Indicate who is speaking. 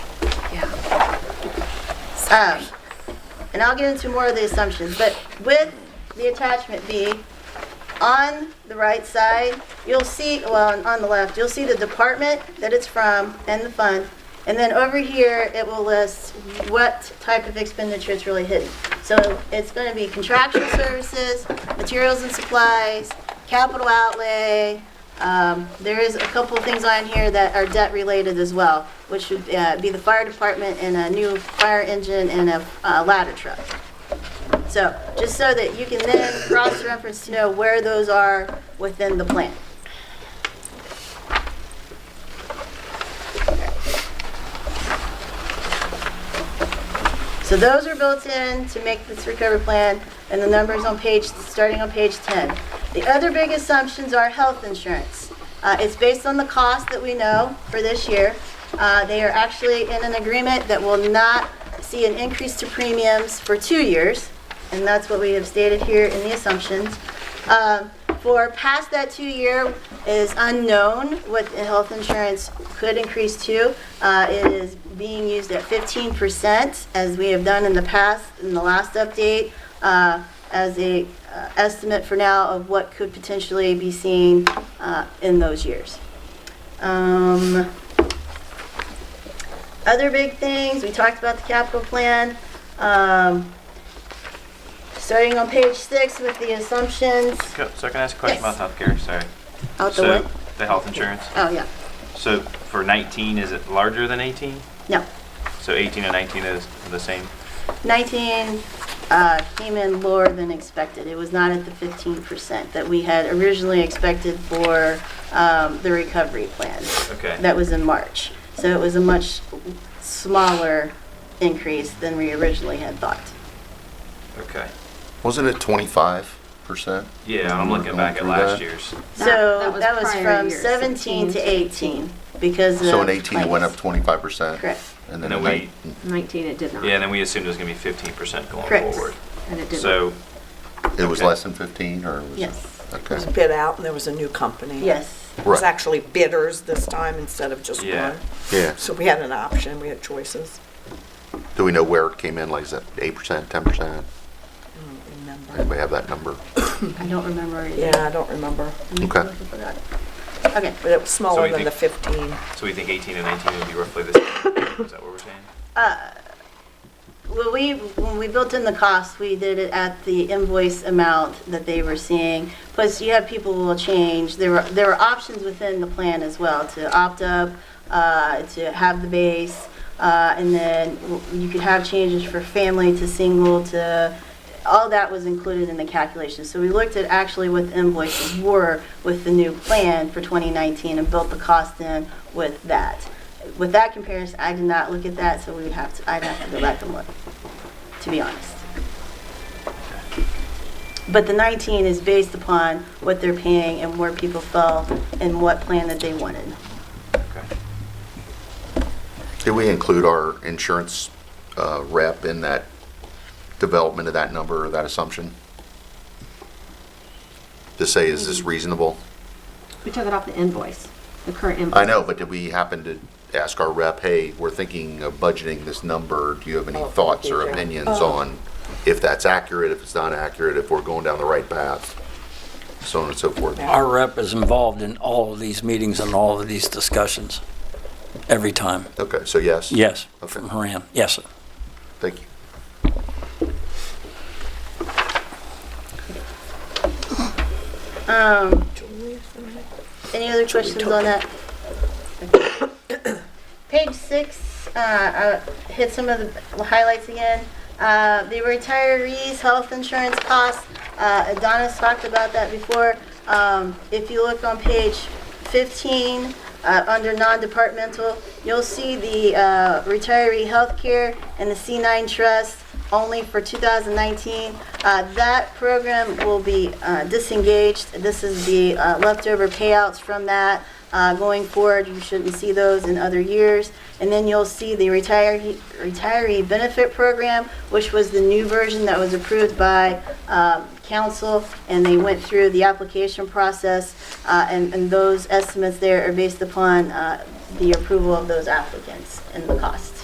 Speaker 1: Um, And I'll get into more of the assumptions, but with the attachment B, on the right side, you'll see, well, on the left, you'll see the department that it's from and the fund. And then over here, it will list what type of expenditure it's really hitting. So it's going to be contractual services, materials and supplies, capital outlay. Um, There is a couple of things on here that are debt-related as well, which should uh, be the fire department and a new fire engine and a uh, ladder truck. So, just so that you can then cross-reference to know where those are within the plan. So those are built in to make this recovery plan, and the numbers on page, starting on page 10. The other big assumptions are health insurance. Uh, It's based on the cost that we know for this year. Uh, They are actually in an agreement that will not see an increase to premiums for two years, and that's what we have stated here in the assumptions. Um, For past that two-year is unknown what the health insurance could increase to. Uh, It is being used at 15%, as we have done in the past, in the last update, uh, as a uh, estimate for now of what could potentially be seen uh, in those years. Um, Other big things, we talked about the capital plan. Um, Starting on page six with the assumptions,
Speaker 2: So so can I ask a question
Speaker 1: Yes.
Speaker 2: about healthcare? Sorry.
Speaker 1: out the
Speaker 2: so
Speaker 1: what?
Speaker 2: the health insurance.
Speaker 1: Oh, yeah,
Speaker 2: So for 19, is it larger than 18?
Speaker 1: no.
Speaker 2: So 18 and 19 is the same.
Speaker 1: 19 uh, came in lower than expected. It was not at the 15% that we had originally expected for um, the recovery plan.
Speaker 2: Okay.
Speaker 1: That was in March. So it was a much smaller increase than we originally had thought.
Speaker 2: Okay.
Speaker 3: Wasn't it twenty-five percent?
Speaker 2: Yeah, I'm looking back at last year's.
Speaker 1: So
Speaker 4: that was
Speaker 1: that was
Speaker 4: prior
Speaker 1: from
Speaker 4: year,
Speaker 1: 17 to 18 because of.
Speaker 3: So in eighteen, it went up
Speaker 1: claims.
Speaker 3: twenty-five percent?
Speaker 1: Correct.
Speaker 3: And then
Speaker 2: And
Speaker 3: in
Speaker 2: then we-
Speaker 3: nineteen,
Speaker 4: 19 it did not.
Speaker 2: Yeah, and then we assumed it was going to be 15% going
Speaker 1: Correct.
Speaker 2: forward.
Speaker 4: And it didn't.
Speaker 2: So
Speaker 3: it was
Speaker 2: Okay.
Speaker 3: less than fifteen, or was it?
Speaker 1: Yes,
Speaker 3: Okay.
Speaker 5: was bid out and there was a new company.
Speaker 1: yes.
Speaker 5: It was
Speaker 3: Right.
Speaker 5: actually bidders this time instead of just
Speaker 2: Yeah.
Speaker 5: one.
Speaker 3: Yeah.
Speaker 5: So we had an option, we had choices.
Speaker 3: Do we know where it came in? Like, is that eight percent, ten percent?
Speaker 5: Remember?
Speaker 3: Anybody have that number?
Speaker 1: I don't remember. either.
Speaker 5: Yeah, I don't remember,
Speaker 3: Okay.
Speaker 1: I forgot. Okay.
Speaker 5: but it was
Speaker 2: So
Speaker 5: smaller
Speaker 2: we
Speaker 5: than the
Speaker 2: think-
Speaker 5: 15.
Speaker 2: so we think 18 and 19 would be roughly the same. is that what we're saying?
Speaker 1: Well, we, when we built in the cost, we did it at the invoice amount that they were seeing. Plus, you have people who will change. There were, there were options within the plan as well to opt up, uh, to have the base, uh, and then w- you could have changes for family to single to, all that was included in the calculation. So we looked at actually what the invoices were with the new plan for 2019 and built the cost in with that. With that comparison, I did not look at that, so we would have to, I'd have to go back and look, to be honest. But the 19 is based upon what they're paying and where people fell and what plan that they wanted.
Speaker 2: Okay.
Speaker 3: Did we include our insurance uh, rep in that development of that number or that assumption? To say, is this reasonable?
Speaker 4: We took it off the invoice, the current invoice.
Speaker 3: I know, but did we happen to ask our rep, hey, we're thinking of budgeting this number, do you have any thoughts or opinions on if that's accurate, if it's not accurate, if we're going down the right path, so on and so forth?
Speaker 6: Our rep is involved in all of these meetings and all of these discussions, every time.
Speaker 3: Okay, so yes?
Speaker 6: Yes,
Speaker 3: Okay.
Speaker 6: from Haran, yes, sir.
Speaker 3: Thank you.
Speaker 1: Um,
Speaker 5: Julius, am I-
Speaker 1: Any other questions on that? Page six, uh, uh, hit some of the highlights again. Uh, The retirees' health insurance costs, uh, Adonis talked about that before. Um, If you look on page 15, uh, under non-departmental, you'll see the uh, retiree healthcare and the C9 trust only for 2019. Uh, That program will be uh, disengaged. This is the uh, leftover payouts from that. Uh, Going forward, you shouldn't see those in other years. And then you'll see the retiree retiree benefit program, which was the new version that was approved by um, council, and they went through the application process, uh, and and those estimates there are based upon uh, the approval of those applicants and the cost.